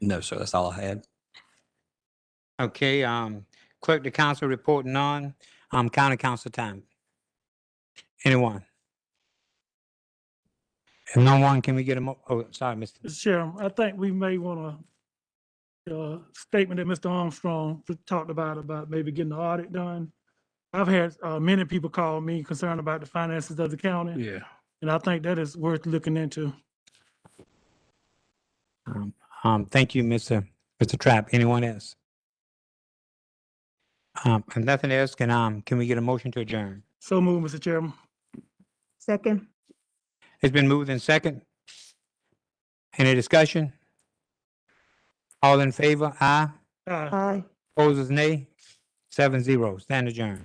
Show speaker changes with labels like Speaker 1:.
Speaker 1: No, sir, that's all I had.
Speaker 2: Okay, um, clerk to council report none, um, county council time. Anyone? If no one, can we get a mo, oh, sorry, Mr.
Speaker 3: Mr. Chairman, I think we may want to, uh, statement that Mr. Armstrong talked about, about maybe getting the audit done. I've had, uh, many people call me concerned about the finances of the county,
Speaker 4: Yeah.
Speaker 3: and I think that is worth looking into.
Speaker 2: Um, Um, thank you, Mr. Mr. Trap. Anyone else? Um, and nothing else, can, um, can we get a motion to adjourn?
Speaker 3: So move, Mr. Chairman.
Speaker 5: Second.
Speaker 2: It's been moved in second. Any discussion? All in favor, aye.
Speaker 3: Aye.
Speaker 5: Aye.
Speaker 2: Opposers, nay. Seven zero. Stand adjourned.